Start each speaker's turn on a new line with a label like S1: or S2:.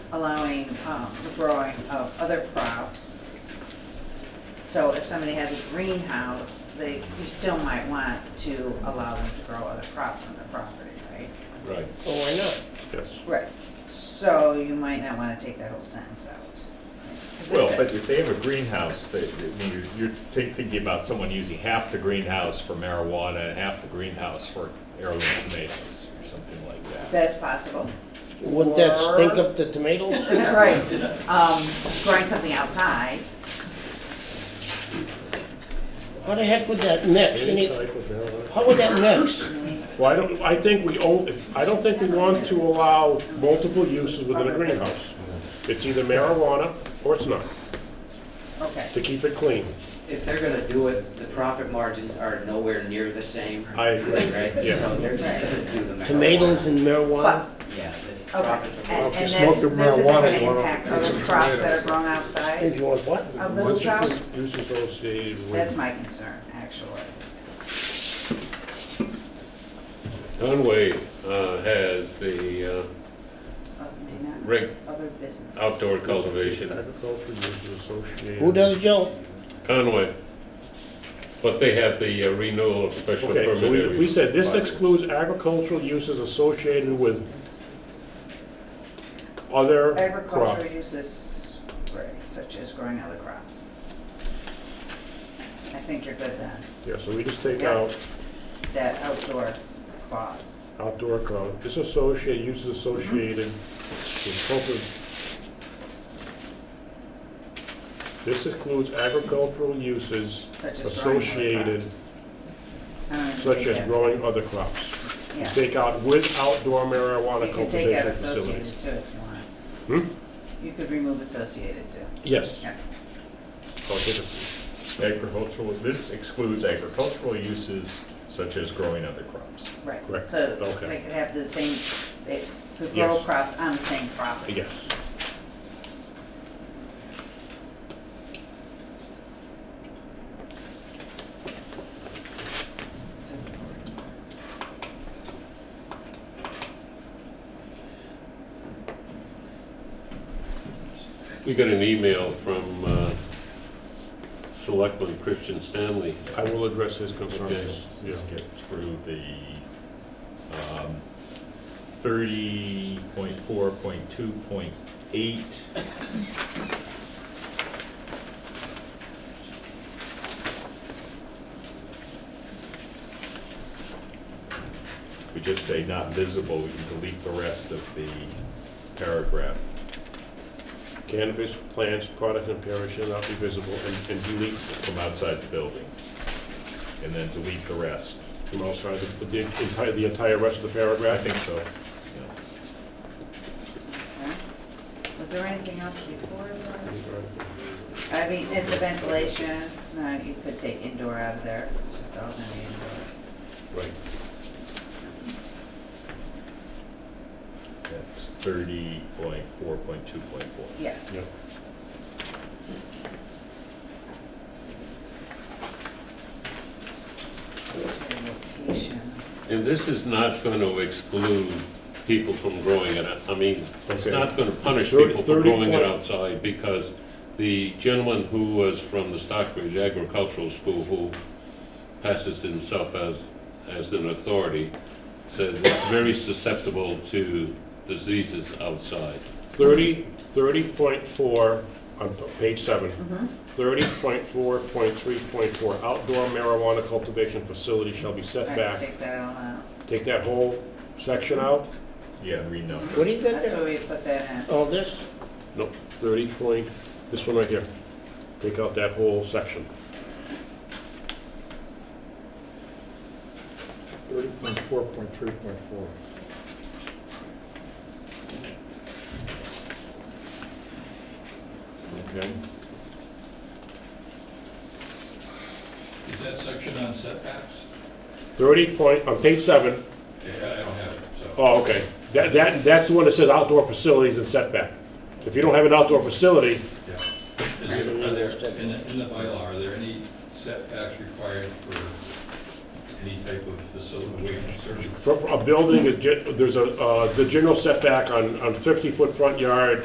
S1: allowing um, the growing of other crops. So if somebody has a greenhouse, they, you still might want to allow them to grow other crops on their property, right?
S2: Right,
S3: Well, Oh, why not?
S2: yes.
S1: Right. So you might not want to take that whole sentence out. 'Cause this
S2: Well,
S1: is-
S2: but if they have a greenhouse, they, they- I mean, you're, you're thi- thinking about someone using half the greenhouse for marijuana and half the greenhouse for heirloom tomatoes or something like that.
S1: That's possible.
S3: Wouldn't that stink
S1: Or-
S3: up the tomatoes?
S1: Right. Um, growing something outside,
S3: How the heck would that mix? Any- How would that mix?
S4: Well, I don't, I think we own, I don't think we want to allow multiple uses within a greenhouse. It's either marijuana or it's not,
S1: okay.
S4: to keep it clean.
S5: If they're gonna do it, the profit margins are nowhere near the same.
S4: I agree,
S5: Right?
S4: yeah.
S5: So they're just gonna do the marijuana.
S3: Tomatoes and
S1: But
S3: marijuana?
S5: Yeah, the
S1: Okay, and
S5: profits are.
S6: Well, if you
S1: and
S6: smoke
S1: that's,
S6: the
S1: this isn't
S6: marijuana,
S1: gonna
S6: you wanna
S1: impact
S6: put some
S1: other crops that
S6: tomatoes.
S1: are grown
S3: If
S1: outside
S3: you want what?
S1: of the
S4: Once you
S1: hoop house?
S4: put use associated
S1: That's
S4: with,
S1: my concern, actually.
S7: Conway uh, has the uh,
S1: Of- may not-
S7: reg-
S1: Other businesses.
S7: outdoor cultivation.
S4: agriculture uses associated.
S3: Who does it, Joe?
S7: Conway, but they have the uh, renewal of special
S4: Okay,
S7: permit.
S4: so we,
S7: every
S4: we said this
S7: five years.
S4: excludes agricultural uses associated with other crop.
S1: Agricultural uses, right, such as growing other crops. I think you're good then,
S4: Yeah, so we just take
S1: Yeah.
S4: out
S1: that outdoor clause.
S4: outdoor grow, disassociate, uses associated with cultiv. This includes agricultural uses
S1: Such as growing other
S4: Associated.
S1: crops. I don't even
S4: such
S1: think
S4: as
S1: that-
S4: growing other crops.
S1: Yeah.
S4: Take out with outdoor
S1: You
S4: marijuana
S1: can take out
S4: cultivation
S1: associated
S4: facilities.
S1: too if you want.
S4: Hmm?
S1: You could remove associated too.
S4: Yes.
S1: Yeah.
S2: So it is Agricultural, this excludes agricultural uses such as growing other crops.
S1: Right.
S4: Correct.
S1: So
S4: Okay.
S1: they could have the same, they could grow
S4: Yes.
S1: crops on the same property.
S4: Yes.
S1: Physical.
S7: We got an email from uh, Selectman Christian Stanley.
S4: I will address his
S7: Okay.
S4: concerns. Yeah.
S2: Let's get through the um, thirty point four point two point eight. We just say not visible, we can delete the rest of the paragraph.
S4: Cannabis plants, products, and parents shall not be visible and- and delete
S2: from outside the building, and then delete the rest.
S4: from outside the- the entire, the entire rest of the
S2: I
S4: paragraph.
S2: think so. yeah.
S1: Okay. Was there anything else before that? I mean, at the ventilation, no, you could take indoor out of there, it's just all gonna be indoor.
S2: Right. That's thirty point four point two point four.
S1: Yes. Okay, Location.
S7: And this is not going to exclude people from growing it, I mean, it's
S4: Okay.
S7: not going to punish
S4: Thirty-
S7: people for
S4: thirty
S7: growing it
S4: point-
S7: outside, because the gentleman who was from the Stockbridge Agricultural School, who passes himself as, as an authority, said it's very susceptible to diseases outside.
S4: 30, 30.4, on p- page 7.
S1: Mhm.
S4: 30.4.3.4, outdoor marijuana cultivation facility shall be set
S1: All right,
S4: back.
S1: take that all out.
S4: Take that whole section out?
S2: Yeah, renumber.
S3: What do you got
S1: That's
S3: there?
S1: where we put that in.
S3: All this?
S4: No, 30 point, this one right here. Take out that whole section.
S6: 30.4.3.4.
S2: Okay.
S8: Is that section on setbacks?
S4: 30 point, on page 7,
S8: Yeah, I don't have it, so.
S4: oh, okay. That, that, that's the one that says outdoor facilities and setback. If you don't have an outdoor facility,
S8: Is there, are there, in the, in the bylaw, are there any setbacks required for any type of facility, waiting service?
S4: for a building, is gen- there's a, uh, the general setback on, on 50-foot front yard